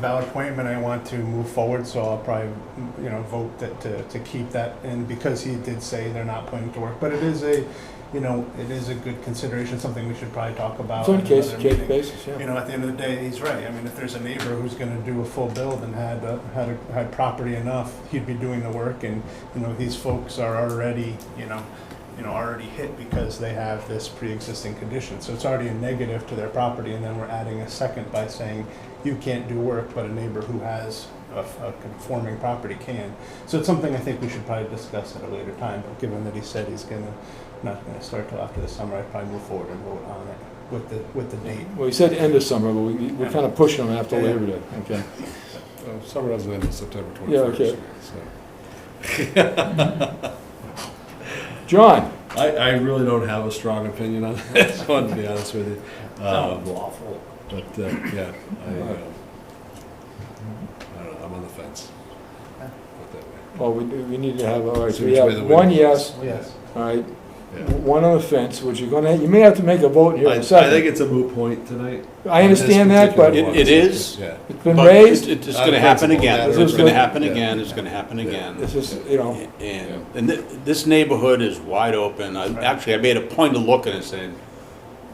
valid point, and I want to move forward, so I'll probably, you know, vote that, to, to keep that in, because he did say they're not planning to work, but it is a, you know, it is a good consideration, something we should probably talk about. It's on in case, another case meeting. basis, You yeah. know, at the end of the day, he's right, I mean, if there's a neighbor who's gonna do a full build and had, uh, had, a- had property enough, he'd be doing the work, and, you know, these folks are already, you know, you know, already hit because they have this pre-existing condition. So it's already a negative to their property, and then we're adding a second by saying, you can't do work, but a neighbor who has a, a conforming property can. So it's something I think we should probably discuss at a later time, but given that he said he's gonna, not gonna start till after the summer, I'd probably move forward and vote on it with the, with the date. Well, you said end of summer, but we, we're kind of pushing them after Labor Day, okay? Uh, Summer doesn't end until September Yeah, 21st. okay. so. John, I, I really don't have a strong opinion on this one, to be honest with you. Um, awful. But, uh, yeah, I, uh, I don't know, I'm on the fence. Put it that way. well, we, we need to have, all right, so See we which way have the one wind yes, Yes. all right, Yeah. one on the fence, which you're gonna, you may have to make a vote here I, in I a second. think it's a moot point tonight. I understand that, but particular it's one. It- it is? Yeah. been But it's, raised, it's Out gonna of happen principle, again, matter of it's gonna principle. happen Yeah. again, it's gonna happen Yeah. again. this is, you know, And, and thi- this neighborhood is wide open, I, actually, I made a point of looking and saying,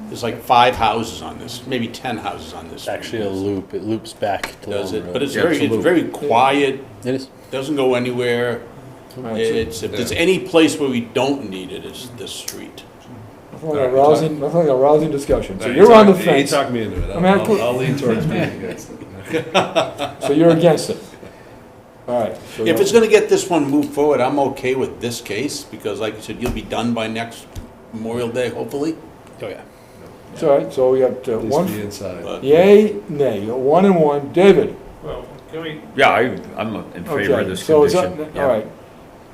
there's like five houses on this, maybe ten houses on this. It's actually a loop. It loops back to Does Long it, Road. but it's Yeah, very, a it's loop. very quiet, It is. doesn't go anywhere. all right, so- It's, if there's Yeah. any place where we don't need it, it's this street. nothing like a rousing, nothing like a rousing discussion, so you're He on the talked- He fence, talked me into it. I mean, I'll, I I'll could- I'll lean towards being against it. so you're against it. All right. so If it's you're- gonna get this one moved forward, I'm okay with this case, because like you said, you'll be done by next Memorial Day, hopefully. Oh yeah. It's all right, so we got uh, At least be one, inside. But- yay, nay, you got one and one, David. Well, can we, Yeah, I, I'm in favor of Okay, this so it's, condition. uh, yeah. all right.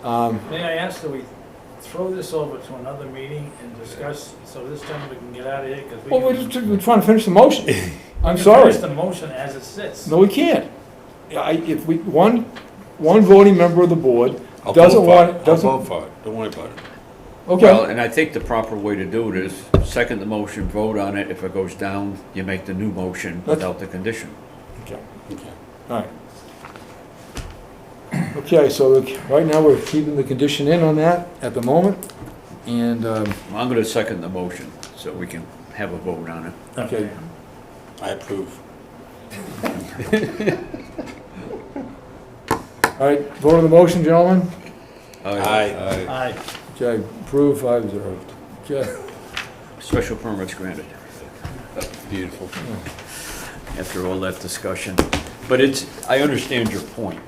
Um, may I ask that we throw this over to another meeting and discuss, so this time we can get out of here, because we. Well, we're can- just, we're trying to finish the motion. I'm we can sorry. finish the motion as it sits. No, we can't. I, if we, one, one voting member of the board I'll vote doesn't for it. want, I'll doesn't, vote for it, don't worry about it. okay, Well, and I think the proper way to do it is, second the motion, vote on it, if it goes down, you make the new motion without the condition. all right. Okay, so the- right now, we're keeping the condition in on that at the moment, and, um, I'm gonna second the motion, so we can have a vote on it. okay. I approve. All right, vote on the motion, gentlemen. Uh, Aye. Aye. Okay, approve, five zero. Okay. Special permits granted. Beautiful. After all that discussion. But it's, I understand your point.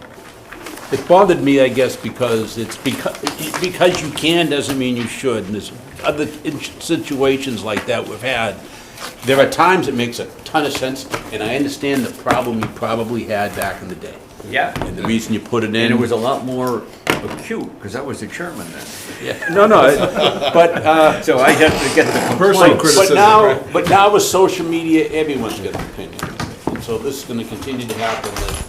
It bothered me, I guess, because it's because, because you can doesn't mean you should, and there's other in- situations like that we've had. There are times it makes a ton of sense, and I understand the problem you probably had back in the day, Yeah. and the reason you put it in. And it was a lot more acute, because I was the chairman then. No, no, it- but, uh, So I had to get the but complaint. but now, but now with social media, everyone's got an opinion, and so this is gonna continue to happen, that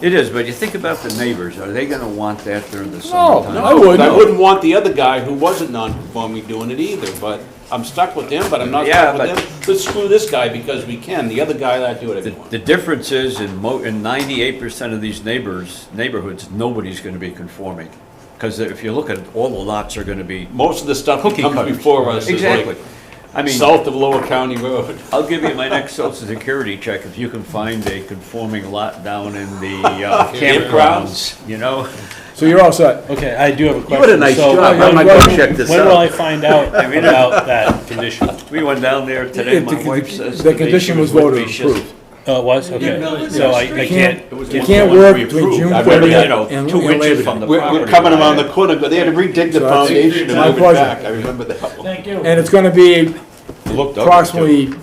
It is, but you think about the neighbors, are they gonna want that during the No, summertime? no, I wouldn't. I wouldn't want the other guy who wasn't non-conforming doing it either, but I'm stuck with him, but I'm not Yeah, stuck with but- him. Let's screw this guy because we can, the other guy, I do The, whatever I the want. difference is in mo, in ninety-eight percent of these neighbors, neighborhoods, nobody's gonna be conforming. Cause if you look at, it, all the lots are gonna be Most of the stuff that cookie comes cutters. before us is Exactly. like I mean, south of Lower County Road. I'll give you my next social security check if you can find a conforming lot down in the uh, campgrounds, you know? So you're all set. Okay, I do have a question. You had a nice So, job, I'm when- gonna go when- check this When will out. I find out about that condition? We went down there today, It- my the- wife says. The to me she condition was with me, voted she says, approved. Oh, it was? no, Okay. it's So I, not I can't, You can't, It was you one can't of the ones work we between approved. June I remember, 30th you know, and- two and inches later. from the We're, we're property coming around line. the corner, but they had to redig the So- foundation My and move it pleasure. back. I remember that one. Thank you. and it's gonna be It looked ugly, too, approximately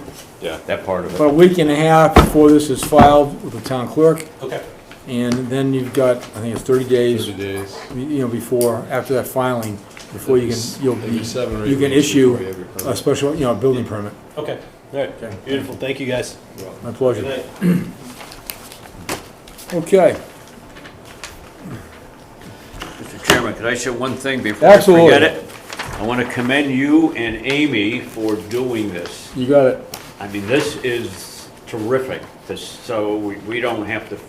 Yeah. That part of it. about a week and a half before this is filed with the town clerk, Okay. and then you've got, I think it's thirty days, 30 days. you know, before, after that filing, before you can, you'll Maybe seven or be, eight you can weeks issue before you have your permit. a special, you know, a building permit. okay, all right, beautiful, thank you guys. My Good pleasure. night. Okay, Mr. Chairman, could I say one thing before I forget Absolutely. it? I want to commend you and Amy for doing this. you got it. I mean, this is terrific, this- so we, we don't have to